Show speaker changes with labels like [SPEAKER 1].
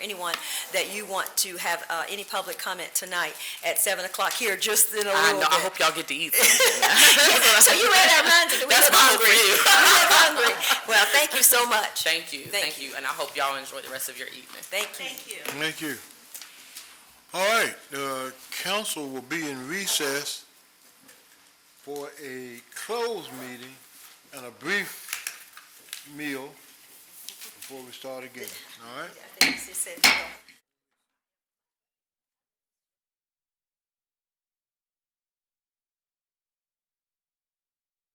[SPEAKER 1] anyone that you want to have uh, any public comment tonight at 7 o'clock here, just in a
[SPEAKER 2] I
[SPEAKER 1] little
[SPEAKER 2] know, I
[SPEAKER 1] bit.
[SPEAKER 2] hope y'all get to eat something.
[SPEAKER 1] So you read our minds, and we
[SPEAKER 2] That's
[SPEAKER 1] were
[SPEAKER 2] my hope for
[SPEAKER 1] hungry.
[SPEAKER 2] you.
[SPEAKER 1] We were hungry. Well, thank you so much.
[SPEAKER 2] Thank you,
[SPEAKER 1] Thank
[SPEAKER 2] thank you, and I hope y'all enjoy the rest of your evening.
[SPEAKER 1] Thank you.
[SPEAKER 3] Thank you. All right, the council will be in recess for a closed meeting and a brief meal before we start again, all right?
[SPEAKER 1] I think she said,